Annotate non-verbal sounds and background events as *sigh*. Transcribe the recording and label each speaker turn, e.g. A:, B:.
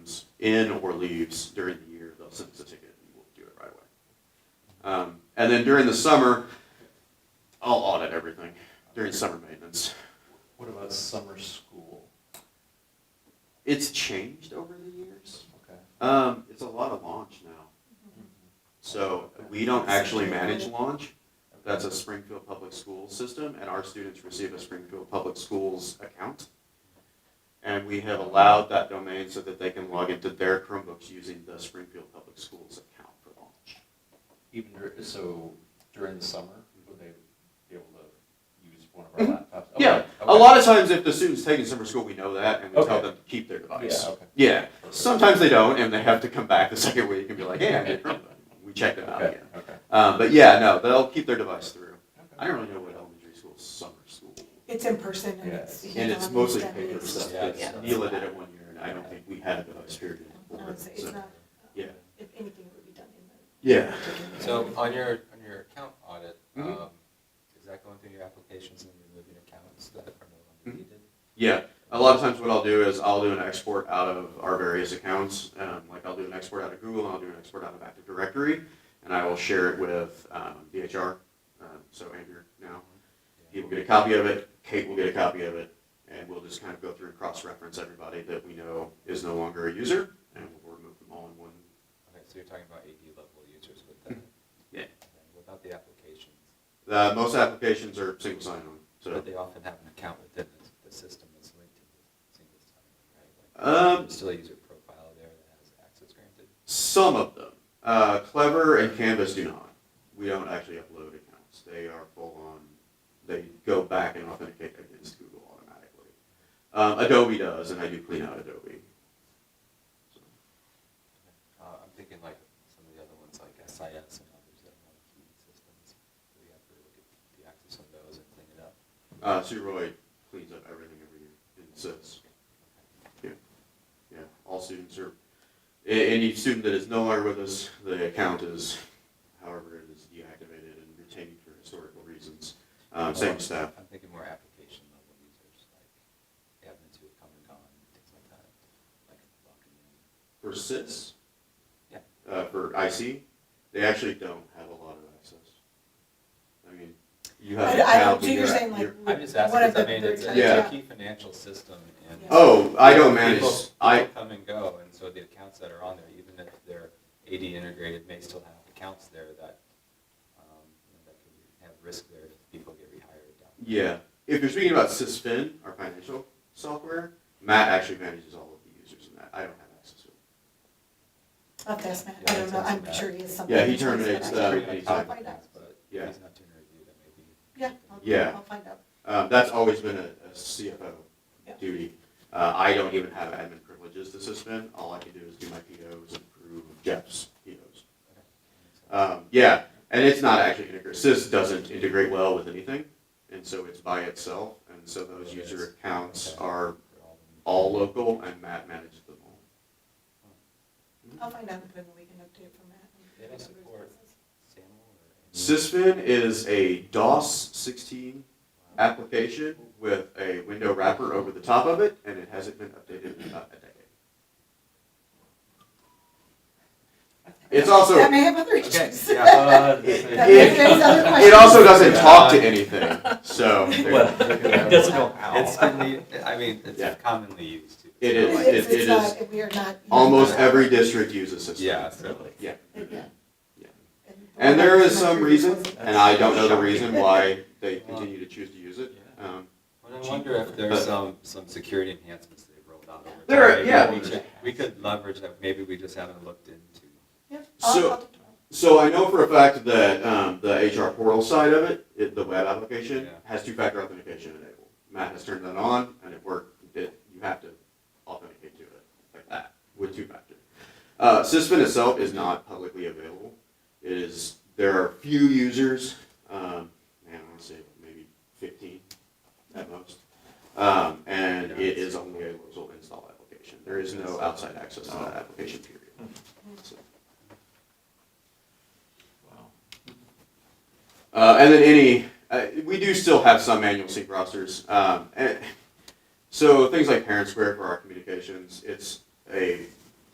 A: in or leaves during the year, they'll send us a ticket and we'll do it right away. Um, and then during the summer, I'll audit everything during summer maintenance.
B: What about summer school?
A: It's changed over the years.
B: Okay.
A: Um, it's a lot of launch now. So we don't actually manage launch. That's a Springfield Public Schools system, and our students receive a Springfield Public Schools account. And we have allowed that domain so that they can log into their Chromebooks using the Springfield Public Schools account for launch.
B: Even, dur- so during the summer, would they be able to use one of our laptops? Okay,
A: Yeah, a
B: okay.
A: lot of times if the student's taking summer school, we know that, and we tell
B: Okay.
A: them to keep their device.
B: Yeah, okay.
A: Yeah, sometimes they don't, and they have to come back the *laughs* second week and be like, hey, I did Chromebook. We checked them out
B: Okay,
A: again.
B: okay.
A: Um, but yeah, no, they'll keep their device through. I
B: okay.
A: don't really know what elementary school is summer school.
C: It's in person and
B: Yeah,
C: it's.
B: it's-
A: And it's mostly paper
C: it's-
A: stuff.
B: Yeah.
A: It's- Neela did it one year and I don't think we had a device period.
C: No, it's, it's not,
A: Yeah.
C: if anything, it would be done in the.
A: Yeah.
D: So on your, on your account audit,
A: Mhm.
D: um, is that going through your applications and removing accounts that are no
A: Mhm.
D: longer needed?
A: Yeah. A lot of times what I'll do is I'll do an export out of our various accounts. Um, like I'll do an export out of Google and I'll do an export out of Active Directory and I will share it with, um, VHR. Um, so Andrew now, he will get a copy of it. Kate will get a copy of it. And we'll just kind of go through and cross-reference everybody that we know is no longer a user and we'll remove them all in one.
D: Okay, so you're talking about AD level users with that?
A: Yeah.
D: What about the applications?
A: Uh, most applications are single sign-on, so.
D: But they often have an account within the, the system that's linked to the single sign-on, right? Like,
A: Um,
D: There's still a user profile there that has access granted?
A: Some of them. Uh, Clever and Canvas do not. We don't actually upload accounts. They are full on, they go back and authenticate against Google automatically. Um, Adobe does, and I do clean out Adobe. So,
D: Uh, I'm thinking like some of the other ones, like SIS and others that have key systems. Do we have to look at the access on those and clean it up?
A: Uh, Suroid cleans up everything every year and sits. Yeah. Yeah. All students are, a- any student that is no longer with us, the account is, however, it is deactivated and retained for historical reasons. Um, same staff.
D: I'm thinking more application level users, like admins who have come and gone, things like that, like logging in.
A: For SIS?
D: Yeah.
A: Uh, for IC, they actually don't have a lot of access. I mean, you have.
C: I- I don't-
A: account,
C: so you're
A: you're-
C: saying like.
A: Uh, you're-
D: I'm just
C: one
D: asking,
C: of
D: 'cause I
C: the
D: mean, it's,
C: third-
D: it's a
A: Yeah.
D: key financial system and.
A: Oh, I don't manage,
D: People-
A: I,
D: People come and go, and so the accounts that are on there, even if they're AD integrated, may still have accounts there that, um, you know, that could have risk there if people get rehired down.
A: yeah, if you're speaking about SysFin, our financial software, Matt actually manages all of the users in that, I don't have access to it.
C: I'll have to ask Matt.
D: Yeah,
C: I don't know,
D: that's
C: I'm
D: bad.
C: sure he is something.
A: Yeah, he terminates,
C: I'll
A: uh,
C: find out.
A: anytime.
C: I'll find out.
D: But if
A: Yeah.
D: he's not doing a review, that may be.
C: Yeah, I'll-
A: Yeah.
C: I'll find out.
A: Um, that's always been a, a CFO
C: Yeah.
A: duty. Uh, I don't even have admin privileges to SysFin, all I can do is do my POs and approve Jeff's POs. Um, yeah, and it's not actually integrated. Sys doesn't integrate well with anything, and so it's by itself. And so those user accounts are all local, and Matt manages them all.
C: I'll find out and then we can update for Matt.
D: They don't support SAML or? any-
A: Sysfin is a DOS 16
D: Wow.
A: application with a window wrapper over the top of it, and it hasn't been updated in about a decade. It's also
C: That may have other
D: Okay,
C: issues.
D: yeah.
B: Uh,
A: It-
C: That may
A: it-
C: raise other
A: it also doesn't
B: Yeah.
A: talk to anything. So
B: Well,
A: *laughs*
B: *laughs* it doesn't go
D: It's
B: out.
D: commonly, I mean,
A: *laughs* Yeah.
D: it's commonly used too.
A: It is.
C: *laughs* It is,
A: it- it
C: it's not, we are not.
A: almost every district uses Sysfin.
D: Yeah, certainly.
A: Yeah.
C: Yeah.
A: Yeah. And there is some reason, and I don't know the reason why they continue to choose to use it. Um,
D: But I wonder if there's *laughs* some, some security enhancements they've rolled out. over
A: There are-
D: time.
A: yeah.
D: Maybe We should- we could leverage that, maybe we just haven't looked into.
C: Yeah,
A: So-
C: I'll, I'll,
A: So I know for a fact that um, the HR portal side of it, it the web application,
D: Yeah.
A: has two-factor authentication enabled. Matt has turned that on, and it worked. It, you have to authenticate to it like that with two-factor. Uh, Sysfin itself is not publicly available. It is there are few users, um, man, I want to say maybe 15 at most, um, and it is only a local install application. There is no outside access to that application period. So- Uh, and then any, uh, we do still have some manual sync rosters. Um, and so things like Parent Square for our communications, it's a